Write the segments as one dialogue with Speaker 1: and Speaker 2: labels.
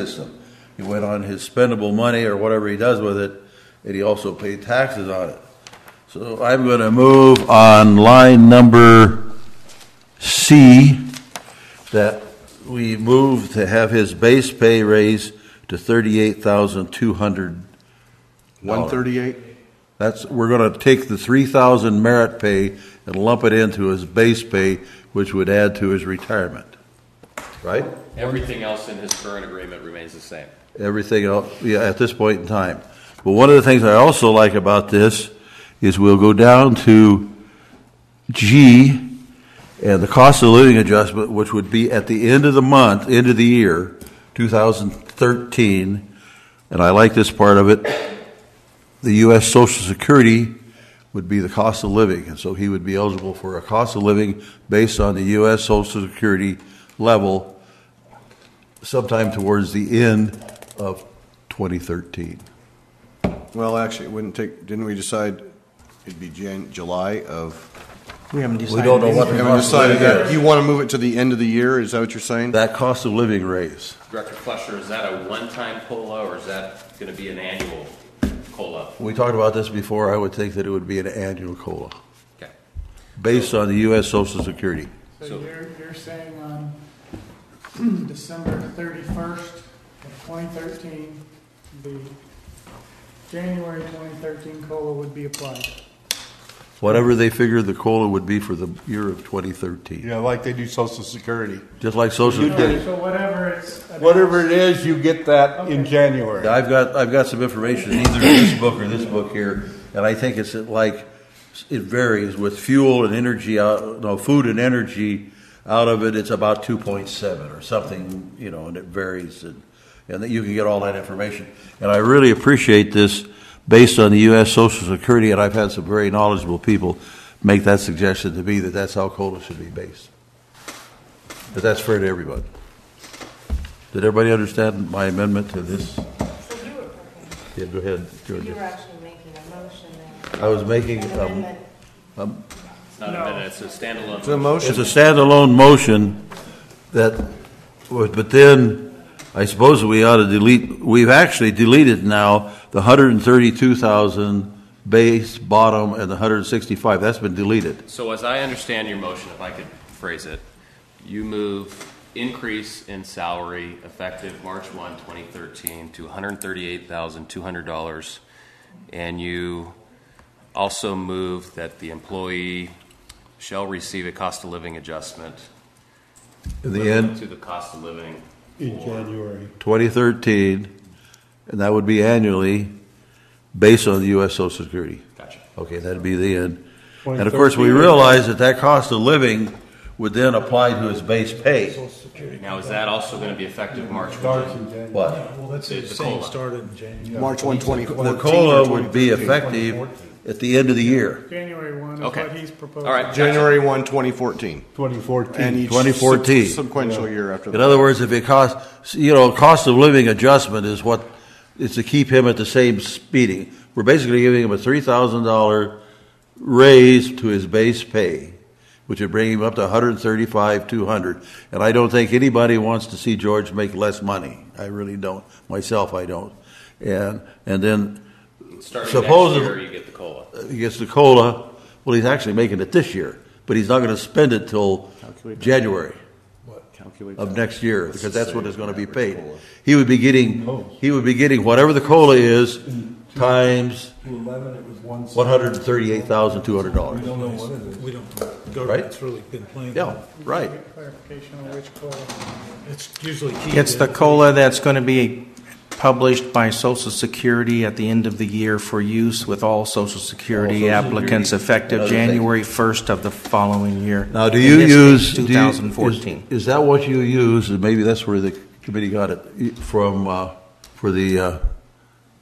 Speaker 1: system. He went on his spendable money or whatever he does with it, and he also paid taxes on it. So I'm going to move on line number C, that we move to have his base pay raise to thirty-eight thousand two hundred.
Speaker 2: One thirty-eight?
Speaker 1: That's, we're going to take the three thousand merit pay and lump it into his base pay, which would add to his retirement, right?
Speaker 3: Everything else in his current agreement remains the same.
Speaker 1: everything else, yeah, at this point in time. But one of the things I also like about this is we'll go down to G and the cost of living adjustment, which would be at the end of the month, end of the year, 2013. And I like this part of it. The U.S. Social Security would be the cost of living. And so he would be eligible for a cost of living based on the U.S. Social Security level sometime towards the end of 2013.
Speaker 2: Well, actually, it wouldn't take, didn't we decide it'd be Jan, July of?
Speaker 4: We haven't decided.
Speaker 1: don't know what
Speaker 2: We
Speaker 1: the-
Speaker 4: anything.
Speaker 2: haven't
Speaker 1: cost of
Speaker 2: decided
Speaker 1: living
Speaker 2: that.
Speaker 1: is.
Speaker 2: You want to move it to the end of the year, is that what you're saying?
Speaker 1: That cost of living raise.
Speaker 3: Director Fletcher, is that a one-time COLA or is that going to be an annual COLA?
Speaker 1: We talked about this before, I would think that it would be an annual COLA,
Speaker 3: Okay.
Speaker 1: based on the U.S. Social Security.
Speaker 5: So
Speaker 3: So-
Speaker 5: you're, you're saying on December thirty-first of twenty thirteen, the January twenty thirteen COLA would be applied?
Speaker 1: Whatever they figured the COLA would be for the year of 2013.
Speaker 6: Yeah, like they do Social Security.
Speaker 1: Just like Social Security.
Speaker 5: So whatever it's.
Speaker 6: Whatever it is, you get that in January.
Speaker 1: I've got, I've got some information in either this book or this book here, and I think it's at like, it varies with fuel and energy out, no, food and energy out of it, it's about two point seven or something, you know, and it varies and, and that you can get all that information. And I really appreciate this based on the US Social Security, and I've had some very knowledgeable people make that suggestion to me that that's how COLA should be based. But that's fair to everybody. Did everybody understand my amendment to this?
Speaker 7: So you were, okay.
Speaker 1: Yeah, go ahead,
Speaker 7: you were
Speaker 1: Georgia.
Speaker 7: actually making a motion then.
Speaker 1: I was making,
Speaker 7: An
Speaker 1: um,
Speaker 7: amendment.
Speaker 3: It's not a minute, it's a standalone.
Speaker 2: It's a motion.
Speaker 1: it's a standalone motion that, was- but then, I suppose we ought to delete, we've actually deleted now the hundred and thirty-two thousand base, bottom, and the hundred and sixty-five, that's been deleted.
Speaker 3: So as I understand your motion, if I could phrase it, you move increase in salary effective March 1, 2013 to $138,200. And you also move that the employee shall receive a cost of living adjustment
Speaker 1: In the end,
Speaker 3: to the cost of living
Speaker 6: In January.
Speaker 1: twenty thirteen, and that would be annually, based on the US Social Security.
Speaker 3: Gotcha.
Speaker 1: Okay, that'd be the end. And of course, we realize that that cost of living would then apply to his base pay.
Speaker 3: Now, is that also going to be effective March
Speaker 6: Starts
Speaker 3: 1?
Speaker 6: in January.
Speaker 1: What?
Speaker 4: Well, that's
Speaker 3: The-
Speaker 4: the
Speaker 3: the
Speaker 4: same
Speaker 3: COLA.
Speaker 4: started in January.
Speaker 2: March one, twenty
Speaker 1: The
Speaker 2: fourteen.
Speaker 1: COLA would be effective at the end of the year.
Speaker 5: January one is
Speaker 3: Okay.
Speaker 5: what he's proposing.
Speaker 3: All right.
Speaker 2: January one, twenty fourteen.
Speaker 6: 2014.
Speaker 2: each
Speaker 1: 2014.
Speaker 2: sub- Sequential year after
Speaker 1: In
Speaker 2: that.
Speaker 1: other words, if it costs, you know, cost of living adjustment is what, is to keep him at the same speeding. We're basically giving him a three thousand dollar raise to his base pay, which would bring him up to one hundred thirty-five, two hundred. And I don't think anybody wants to see George make less money. I really don't. Myself, I don't. And, and then
Speaker 3: Starting
Speaker 1: Supposedly-
Speaker 3: next year, you get the COLA.
Speaker 1: he gets the cola. Well, he's actually making it this year, but he's not going to spend it till January of next year because that's what is going to be paid. He would be getting he would be getting whatever the cola is times
Speaker 6: To 11, it was one.
Speaker 1: one hundred thirty-eight thousand two hundred dollars.
Speaker 4: No, we don't.
Speaker 1: Right?
Speaker 4: Government's really been playing.
Speaker 1: Yeah, right.
Speaker 5: Clarification on which COLA.
Speaker 4: It's usually key.
Speaker 8: It's the COLA that's going to be published by Social Security at the end of the year for use with all Social Security applicants effective
Speaker 1: Other thing.
Speaker 8: January 1st of the following year.
Speaker 1: Now, do
Speaker 8: In
Speaker 1: you
Speaker 8: this case,
Speaker 1: use do you- is-
Speaker 8: 2014.
Speaker 1: Is that what you use? And maybe that's where the committee got it y- from uh, for the uh,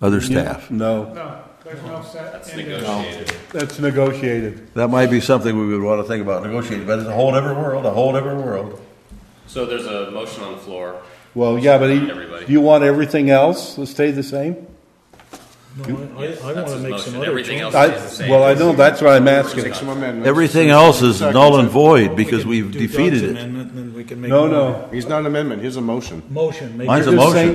Speaker 1: other staff.
Speaker 6: No,
Speaker 5: No, there's no set.
Speaker 3: It's
Speaker 5: end date.
Speaker 3: negotiated.
Speaker 6: that's negotiated.
Speaker 1: That might be something we would want to think about negotiating, but it's a whole different world. A whole different world.
Speaker 3: So there's a motion on the floor.
Speaker 6: Well, yeah, but
Speaker 3: Everybody.
Speaker 6: he- you want everything else to stay the same?
Speaker 4: No, I- I, I
Speaker 3: That's
Speaker 4: want to
Speaker 3: his
Speaker 4: make
Speaker 3: motion.
Speaker 4: some other
Speaker 3: Everything else
Speaker 4: changes.
Speaker 6: I,
Speaker 3: stays the same.
Speaker 6: well, I know, that's what I'm asking.
Speaker 2: Some amendments.
Speaker 1: Everything else is null and void
Speaker 4: We
Speaker 1: because
Speaker 4: can
Speaker 1: we've
Speaker 4: do Doug's
Speaker 1: defeated it.
Speaker 4: amendment, and then we can make.
Speaker 6: No,
Speaker 4: one
Speaker 6: no.
Speaker 2: He's not an amendment, he's a motion.
Speaker 4: Motion. make
Speaker 1: Mine's
Speaker 4: it-
Speaker 1: a
Speaker 6: You're just
Speaker 1: motion.
Speaker 6: saying